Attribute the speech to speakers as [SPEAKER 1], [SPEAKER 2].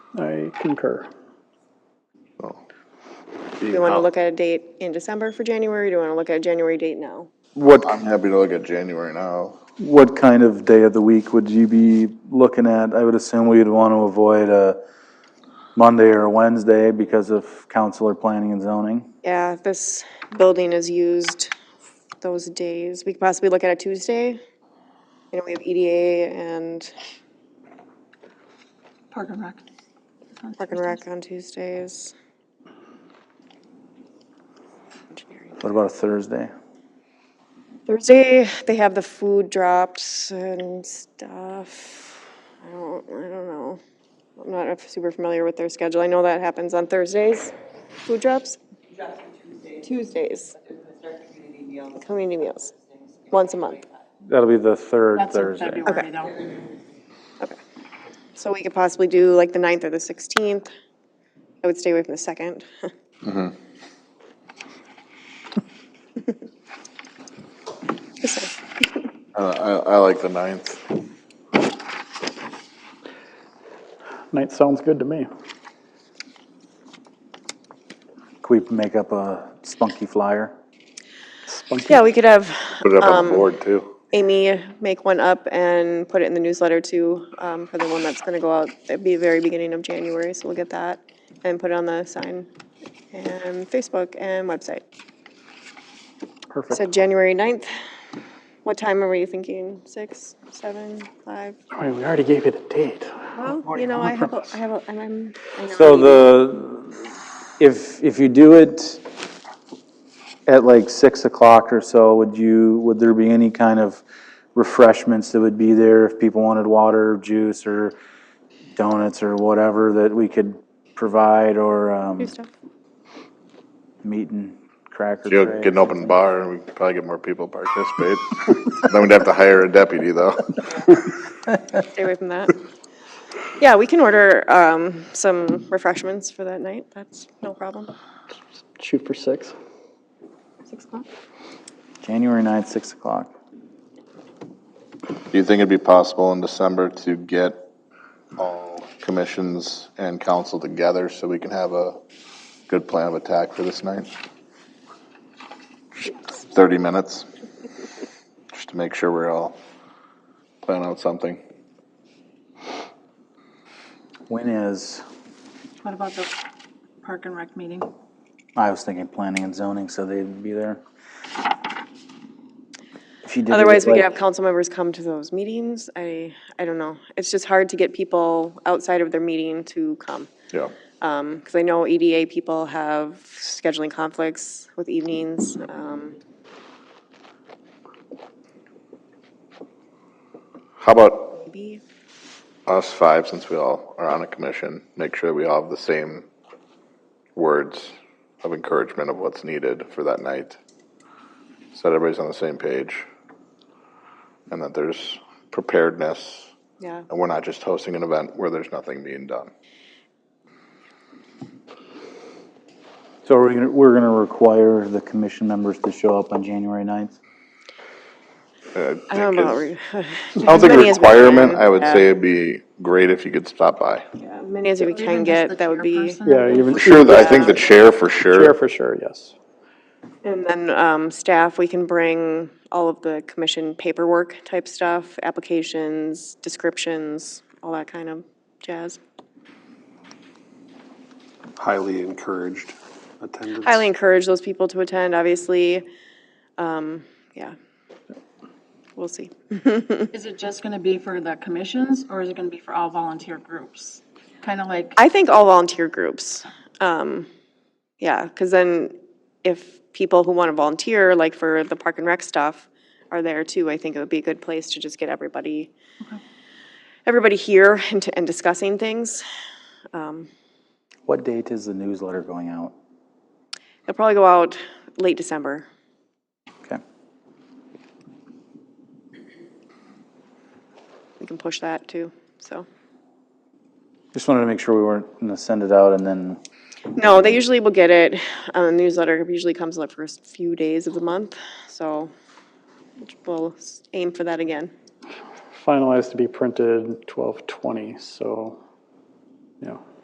[SPEAKER 1] I concur.
[SPEAKER 2] Do you want to look at a date in December for January? Do you want to look at a January date now?
[SPEAKER 1] What,
[SPEAKER 3] I'm happy to look at January now.
[SPEAKER 1] what kind of day of the week would you be looking at? I would assume we'd want to avoid a Monday or a Wednesday because of council or planning and zoning.
[SPEAKER 2] Yeah, this building is used those days. We could possibly look at a Tuesday. You know, we have EDA and
[SPEAKER 4] Park and Rec.
[SPEAKER 2] Park and Rec on Tuesdays.
[SPEAKER 1] What about a Thursday?
[SPEAKER 2] Thursday, they have the food drops and stuff. I don't, I don't know. I'm not super familiar with their schedule. I know that happens on Thursdays, food drops.
[SPEAKER 5] Drops for Tuesdays,
[SPEAKER 2] Tuesdays,
[SPEAKER 5] they're gonna start the community meals.
[SPEAKER 2] community meals, once a month.
[SPEAKER 1] That'll be the third
[SPEAKER 4] That's in
[SPEAKER 1] Thursday.
[SPEAKER 2] Okay.
[SPEAKER 4] February though.
[SPEAKER 2] So we could possibly do like the 9th or the sixteenth. I would stay away from the second.
[SPEAKER 3] I, I, I like the ninth.
[SPEAKER 1] Night sounds good to me. Could we make up a spunky flyer? Spunky?
[SPEAKER 2] Yeah, we could have
[SPEAKER 3] Put it up on the board too.
[SPEAKER 2] Amy make one up and put it in the newsletter too, um, for the one that's gonna go out at the very beginning of January, so we'll get that. And put it on the sign and Facebook and website. So
[SPEAKER 1] Perfect.
[SPEAKER 2] January 9th. What time are you thinking? Six, seven, five?
[SPEAKER 1] I mean, we already gave it a date.
[SPEAKER 2] Well, you know, I have, a I have, a- I'm, I'm. I know
[SPEAKER 6] So
[SPEAKER 2] I'm-
[SPEAKER 6] the, if, if you do it at like 6 o'clock or so, would you, would there be any kind of refreshments that would be there if people wanted water, juice, or donuts or whatever that we could provide, or um,
[SPEAKER 2] Do stuff.
[SPEAKER 6] meat and cracker
[SPEAKER 3] You'll
[SPEAKER 6] trays?
[SPEAKER 3] get an open bar and we could probably get more people to participate. Then we'd have to hire a deputy though.
[SPEAKER 2] Stay away from that. Yeah, we can order, um, some refreshments for that night. That's no problem.
[SPEAKER 7] Shoot for six.
[SPEAKER 4] Six o'clock?
[SPEAKER 6] January 9th, 6 o'clock.
[SPEAKER 3] Do you think it'd be possible in December to get all commissions and council together so we can have a good plan of attack for this night? Thirty minutes? Just to make sure we're all planning out something.
[SPEAKER 6] When is,
[SPEAKER 4] What about the Park and Rec meeting?
[SPEAKER 6] I was thinking planning and zoning, so they'd be there. If you did it
[SPEAKER 2] Otherwise, we
[SPEAKER 6] like-
[SPEAKER 2] could have council members come to those meetings. I, I don't know. It's just hard to get people outside of their meeting to come.
[SPEAKER 3] Yeah.
[SPEAKER 2] Because I know EDA people have scheduling conflicts with evenings. um,
[SPEAKER 3] How about
[SPEAKER 2] Maybe,
[SPEAKER 3] us five, since we all are on a commission, make sure we all have the same words of encouragement of what's needed for that night. So that everybody's on the same page. And that there's preparedness,
[SPEAKER 2] yeah.
[SPEAKER 3] and we're not just hosting an event where there's nothing being done.
[SPEAKER 6] So we're gonna, we're gonna require the commission members to show up on January ninth?
[SPEAKER 3] Uh,
[SPEAKER 2] I don't know. about
[SPEAKER 3] is- I
[SPEAKER 2] re-
[SPEAKER 3] don't think
[SPEAKER 2] many as we
[SPEAKER 3] requirement,
[SPEAKER 2] can,
[SPEAKER 3] I would
[SPEAKER 2] yeah.
[SPEAKER 3] say it'd be great if you could stop by.
[SPEAKER 2] yeah, Many as we
[SPEAKER 4] Even
[SPEAKER 2] can
[SPEAKER 4] just
[SPEAKER 2] get,
[SPEAKER 4] the
[SPEAKER 2] that would be,
[SPEAKER 4] chairperson?
[SPEAKER 1] Yeah, even.
[SPEAKER 3] For sure, that- I think the chair for
[SPEAKER 1] Chair
[SPEAKER 3] sure.
[SPEAKER 1] for sure, yes.
[SPEAKER 2] and then um, staff, we can bring all of the commission paperwork type stuff, applications, descriptions, all that kind of jazz.
[SPEAKER 8] highly encouraged attendance.
[SPEAKER 2] Highly encourage those people to attend, obviously. Um, Yeah. We'll see.
[SPEAKER 4] Is it just gonna be for the commissions or is it gonna be for all volunteer groups? Kind of like,
[SPEAKER 2] I think all volunteer groups. Um, yeah, because then if people who want to volunteer, like for the park and rec stuff, are there too, I think it would be a good place to just get everybody, everybody here and, and discussing things.
[SPEAKER 6] What date is the newsletter going out?
[SPEAKER 2] It'll probably go out late December.
[SPEAKER 6] Okay.
[SPEAKER 2] We can push that too, so.
[SPEAKER 6] Just wanted to make sure we weren't gonna send it out and then,
[SPEAKER 2] No, they usually will get it. Uh, newsletter usually comes in the first few days of the month, so we'll aim for that again.
[SPEAKER 1] Finalized to be printed twelve twenty, so, yeah.